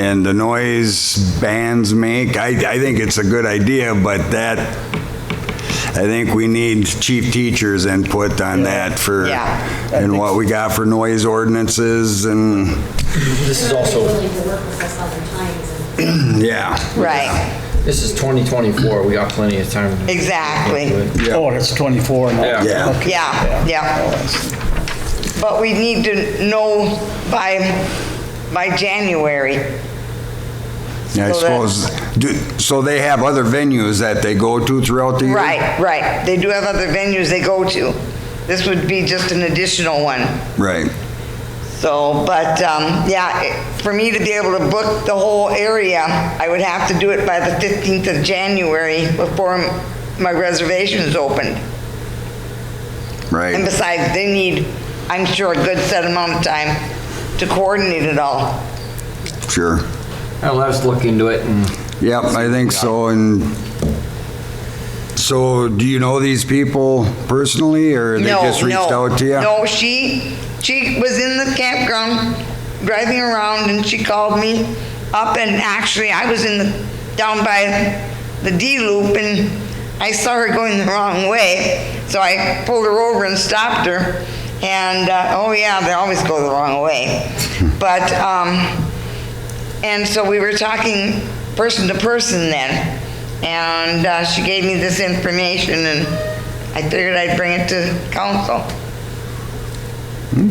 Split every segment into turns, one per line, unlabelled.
and the noise bands make, I, I think it's a good idea, but that, I think we need chief teachers' input on that for,
Yeah.
and what we got for noise ordinances and,
This is also,
willing to work with us all the time is a
yeah.
Right,
this is 2024, we got plenty of time. to
Exactly.
do it.
Yeah.
Oh, it's 24 now.
Yeah.
Yeah.
Okay.
yeah,
Oh,
yeah.
I see.
But we need to know by, by January.
Yeah, I
So that-
suppose, do- so they have other venues that they go to throughout the year?
Right, right. They do have other venues they go to. This would be just an additional one.
Right.
So, but, um, yeah, it- for me to be able to book the whole area, I would have to do it by the 15th of January before m- my reservations opened. And
Right.
besides, they need, I'm sure, a good set amount of time to coordinate it all.
Sure.
Now, let's look into it and
Yep, I think so, and so do you know these people personally, or they
No,
just reached
no,
out to you?
No, she, she was in the campground, driving around, and she called me up, and actually, I was in the, down by the D loop, and I saw her going the wrong way, so I pulled her over and stopped her, and, uh, oh yeah, they always go the wrong way. But, um, and so we were talking person to person then, and uh, she gave me this information, and I figured I'd bring it to council.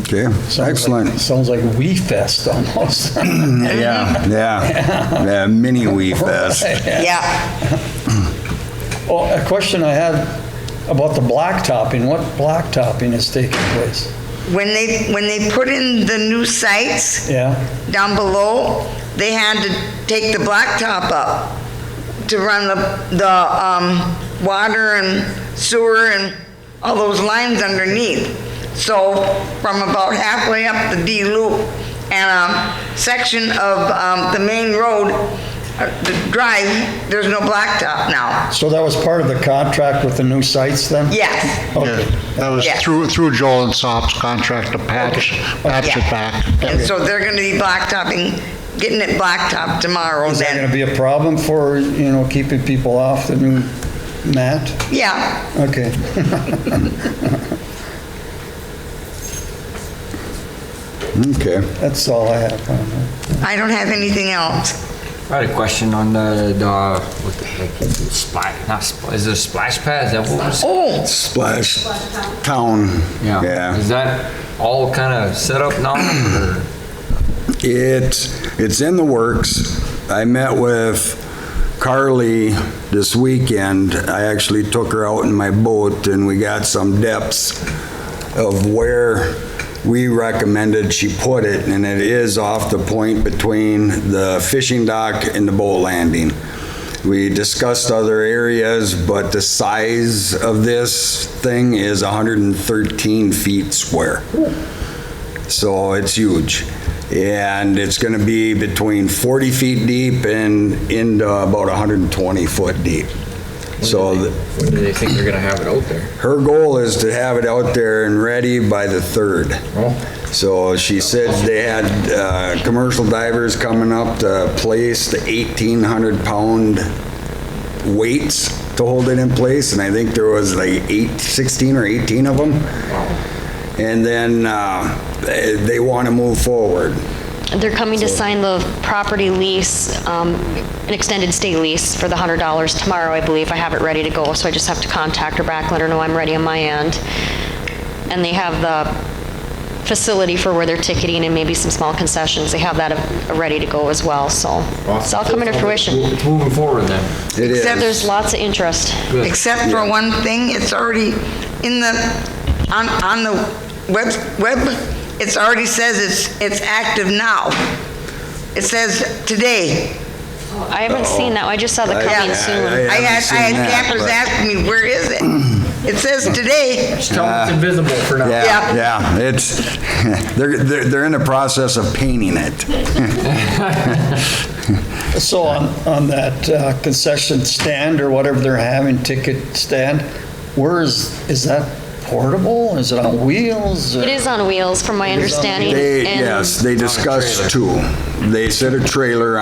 Okay,
Sounds like-
excellent.
Sounds like We Fest almost.
Yeah, yeah, yeah, mini wee fest.
Yeah,
Well, a question I had about the blacktopping, what blacktopping is taking place?
when they, when they put in the new sites
Yeah,
down below, they had to take the blacktop up to run the, the um, water and sewer and all those lines underneath. So from about halfway up the D loop and a section of um, the main road, uh, the drive, there's no blacktop now.
so that was part of the contract with the new sites then?
Yes,
Yeah,
Okay.
that was
Yeah.
through, through Joel and Sop's contract to patch, patch it
Yeah.
back.
and so they're gonna be blacktopping, getting it blacktopped tomorrow
Is that
then.
gonna be a problem for, you know, keeping people off the new mat?
Yeah,
Okay.
Okay,
That's all I have. on that.
I don't have anything else.
I had a question on the, the, what the heck is it, splash, not splash, is it a splash pad, is that what it was?
Oh,
Splash Town,
Oh, Is
yeah.
that all kind of set up now, or?
It, it's in the works. I met with Carly this weekend. I actually took her out in my boat, and we got some depths of where we recommended she put it, and it is off the point between the fishing dock and the boat landing. We discussed other areas, but the size of this thing is 113 feet square. So it's huge. And it's going to be between 40 feet deep and into about 120 foot deep. So the-
When do they think they're gonna have it out there?
her goal is to have it out there and ready by the 3rd. So she said they had uh, commercial divers coming up to place the 1,800-pound weights to hold it in place, and I think there was like eight, 16 or 18 of them. And then uh, they they want to move forward.
They're coming to sign the property lease, um, an extended stay lease for the $100 tomorrow, I believe. I have it ready to go, so I just have to contact her back, let her know I'm ready on my end. And they have the facility for where they're ticketing and maybe some small concessions. They have that uh, ready to go as well, so it's all coming to fruition.
It's moving forward then.
It is.
Except
There's lots of interest.
except for one thing, it's already in the, on, on the web, web, it's already says it's, it's active now. It says today.
I haven't seen that, I just saw the
I-
coming
yeah,
soon.
I had, I
haven't seen
had
that,
campers
but-
asking me, where is it? It says today.
Tell them it's invisible for now.
Yeah,
Yeah.
yeah, it's, they're, they're they're in the process of painting it.
So on, on that uh, concession stand or whatever they're having, ticket stand, where is, is that portable? Is it on wheels? or-
It is on wheels, from my understanding.
They,
and-
yes, they discussed two. They set a trailer